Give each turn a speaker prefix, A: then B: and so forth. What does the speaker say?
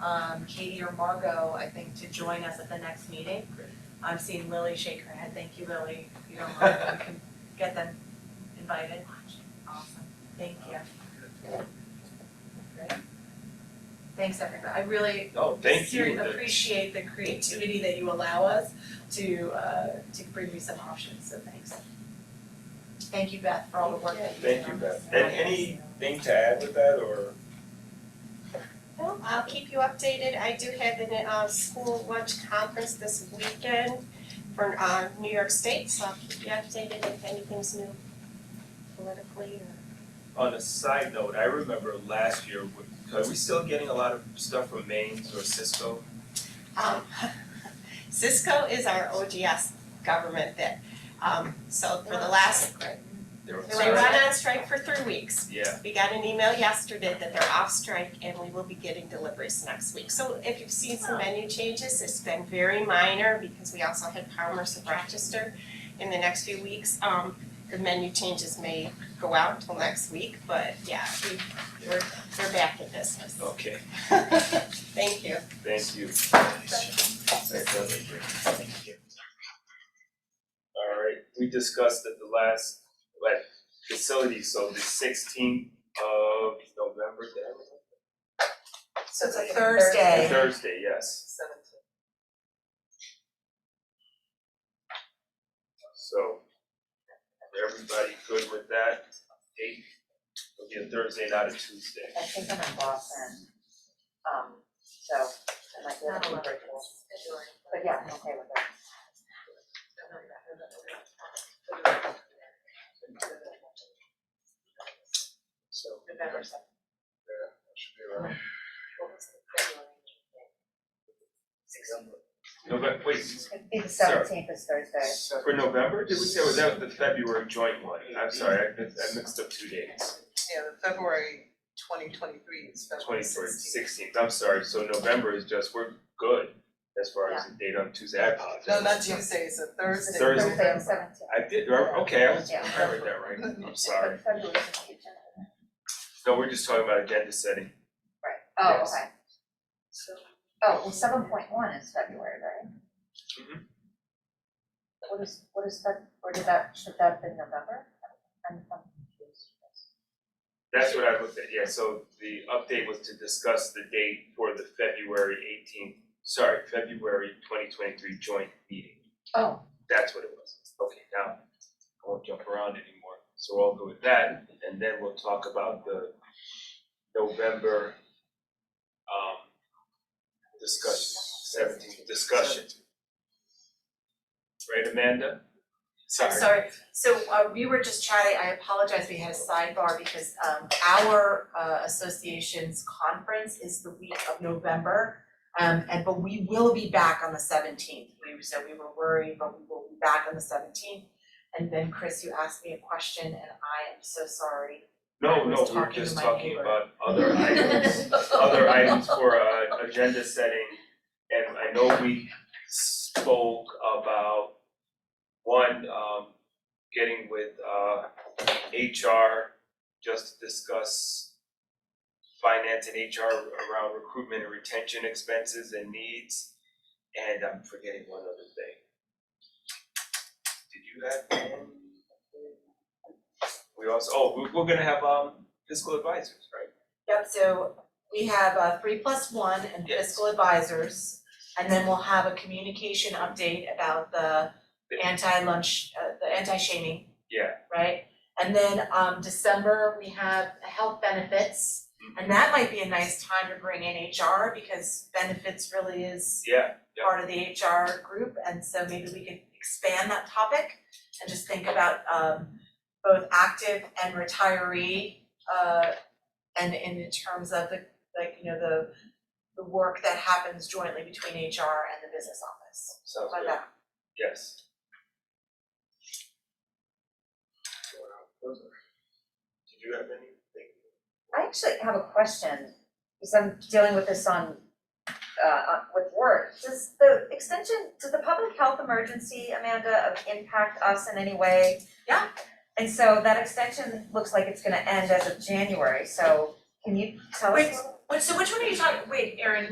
A: um, Katie or Margot, I think, to join us at the next meeting.
B: Great.
A: I'm seeing Lily shake her head, thank you, Lily, if you don't mind, we can get them invited. Awesome, thank you. Great. Thanks, everybody, I really
B: Oh, thank
A: seri-
B: you. That-
A: appreciate the creativity that you allow us to uh to bring you some options, so thanks. Thank you, Beth, for all the work that you did
B: Thank you,
A: on
B: Beth.
A: this.
B: And anything to add with that or?
C: Well, I'll keep you updated. I do have an uh school lunch conference this weekend for uh New York State, so I'll keep you updated if anything's new politically or
B: On a side note, I remember last year, we- are we still getting a lot of stuff from Maine's or Cisco?
C: um Cisco is our OGS government that um so for the last
B: They were-
C: they went on strike for three weeks.
B: Yeah,
C: We got an email yesterday that they're off strike and we will be getting deliveries next week. So if you've seen some menu changes, it's been very minor because we also had Palmer's of Rochester in the next few weeks. Um, the menu changes may go out till next week, but yeah, we, we're, we're back in business.
B: okay,
C: Thank you.
B: thank you. That does it. Thank you. All right, we discussed at the last, like, facility, so the sixteenth of November, then?
A: So it's a Thursday.
B: Thursday, yes. So, everybody good with that? Eight, it'll be a Thursday, not a Tuesday.
D: I think I'm in Boston. Um, so I might be able to break this. But yeah, I'm okay with that.
B: So.
D: November seventh.
B: Yeah, that should be around. November, wait,
D: I think the
B: Sarah.
D: seventeenth is Thursday.
B: for November, did we say, was that the February joint one? I'm sorry, I mixed, I mixed up two dates.
E: Yeah, the February twenty twenty-three is February
B: Twenty-third,
E: sixteenth.
B: sixteenth, I'm sorry, so November is just, we're good as far as the date on Tuesday, I apologize.
E: No, not Tuesday, it's a
B: Thursday.
E: Thursday.
B: Thursday.
D: Thursday the seventeenth.
B: I did, okay, I was, I
D: Yeah.
B: read that right, I'm sorry.
D: February seventeenth.
B: No, we're just talking about agenda setting.
D: Right, oh,
B: Yes.
D: okay. Oh, well, seven point one is February, right?
B: Mhm.
D: What is, what is that, or did that, should that have been November? I'm, I'm confused.
B: That's what I looked at, yeah, so the update was to discuss the date for the February eighteenth, sorry, February twenty twenty-three joint meeting.
D: Oh,
B: That's what it was. Okay, now, I won't jump around anymore, so we'll go with that, and then we'll talk about the November um discussion, seventeen discussion. Right, Amanda? Sorry.
A: Sorry, so uh we were just chatting, I apologize, we had a sidebar because um our uh association's conference is the week of November. Um and but we will be back on the seventeenth, we said we were worried, but we will be back on the seventeenth. And then Chris, you asked me a question and I am so sorry.
B: No,
A: I was
B: no, we we're
A: talking to
B: just
A: my
B: talking
A: neighbor.
B: about other items, other items for uh agenda setting. And I know we spoke about one, um, getting with uh HR just to discuss finance and HR around recruitment and retention expenses and needs. And I'm forgetting one other thing. Did you have one? We also, oh, we're we're gonna have um fiscal advisors, right?
A: Yep, so we have uh three plus one and
B: Yes.
A: fiscal advisors. And then we'll have a communication update about the
B: The-
A: anti-lunch, uh the anti-shaming.
B: Yeah.
A: Right? And then um December, we have health benefits. And that might be a nice time to bring in HR because benefits really is
B: Yeah, yeah.
A: part of the HR group, and so maybe we could expand that topic and just think about um both active and retiree uh and and in terms of the like, you know, the the work that happens jointly between HR and the business office.
B: sounds
A: Like
B: good.
A: that.
B: Yes. Did you have anything?
D: I actually have a question, because I'm dealing with this on, uh, uh, with work. Does the extension, does the public health emergency, Amanda, uh, impact us in any way?
A: Yeah.
D: And so that extension looks like it's gonna end as of January, so can you tell us?
A: Wait, Wait, so which one are you talking, wait, Erin,